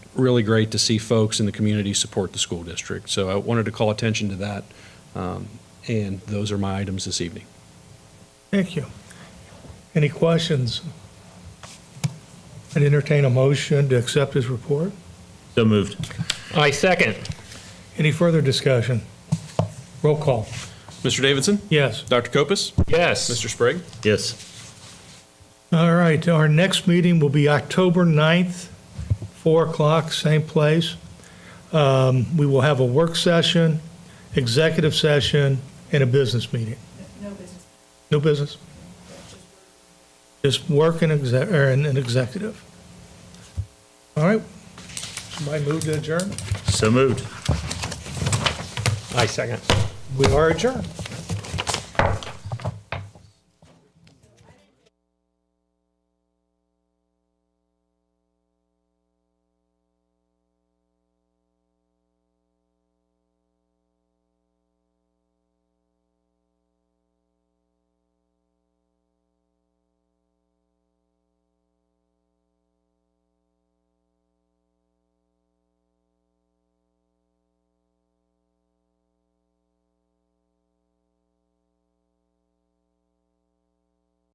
really great to see folks in the community support the school district. So I wanted to call attention to that, um, and those are my items this evening. Thank you. Any questions? I'd entertain a motion to accept his report. So moved. I second. Any further discussion? Roll call. Mr. Davidson? Yes. Dr. Copus? Yes. Mr. Sprague? Yes. All right, our next meeting will be October 9th, 4 o'clock, same place. Um, We will have a work session, executive session, and a business meeting. No business. No business? Just work and exec, or an an executive. All right, somebody move to adjourn? So moved. I second. We are adjourned.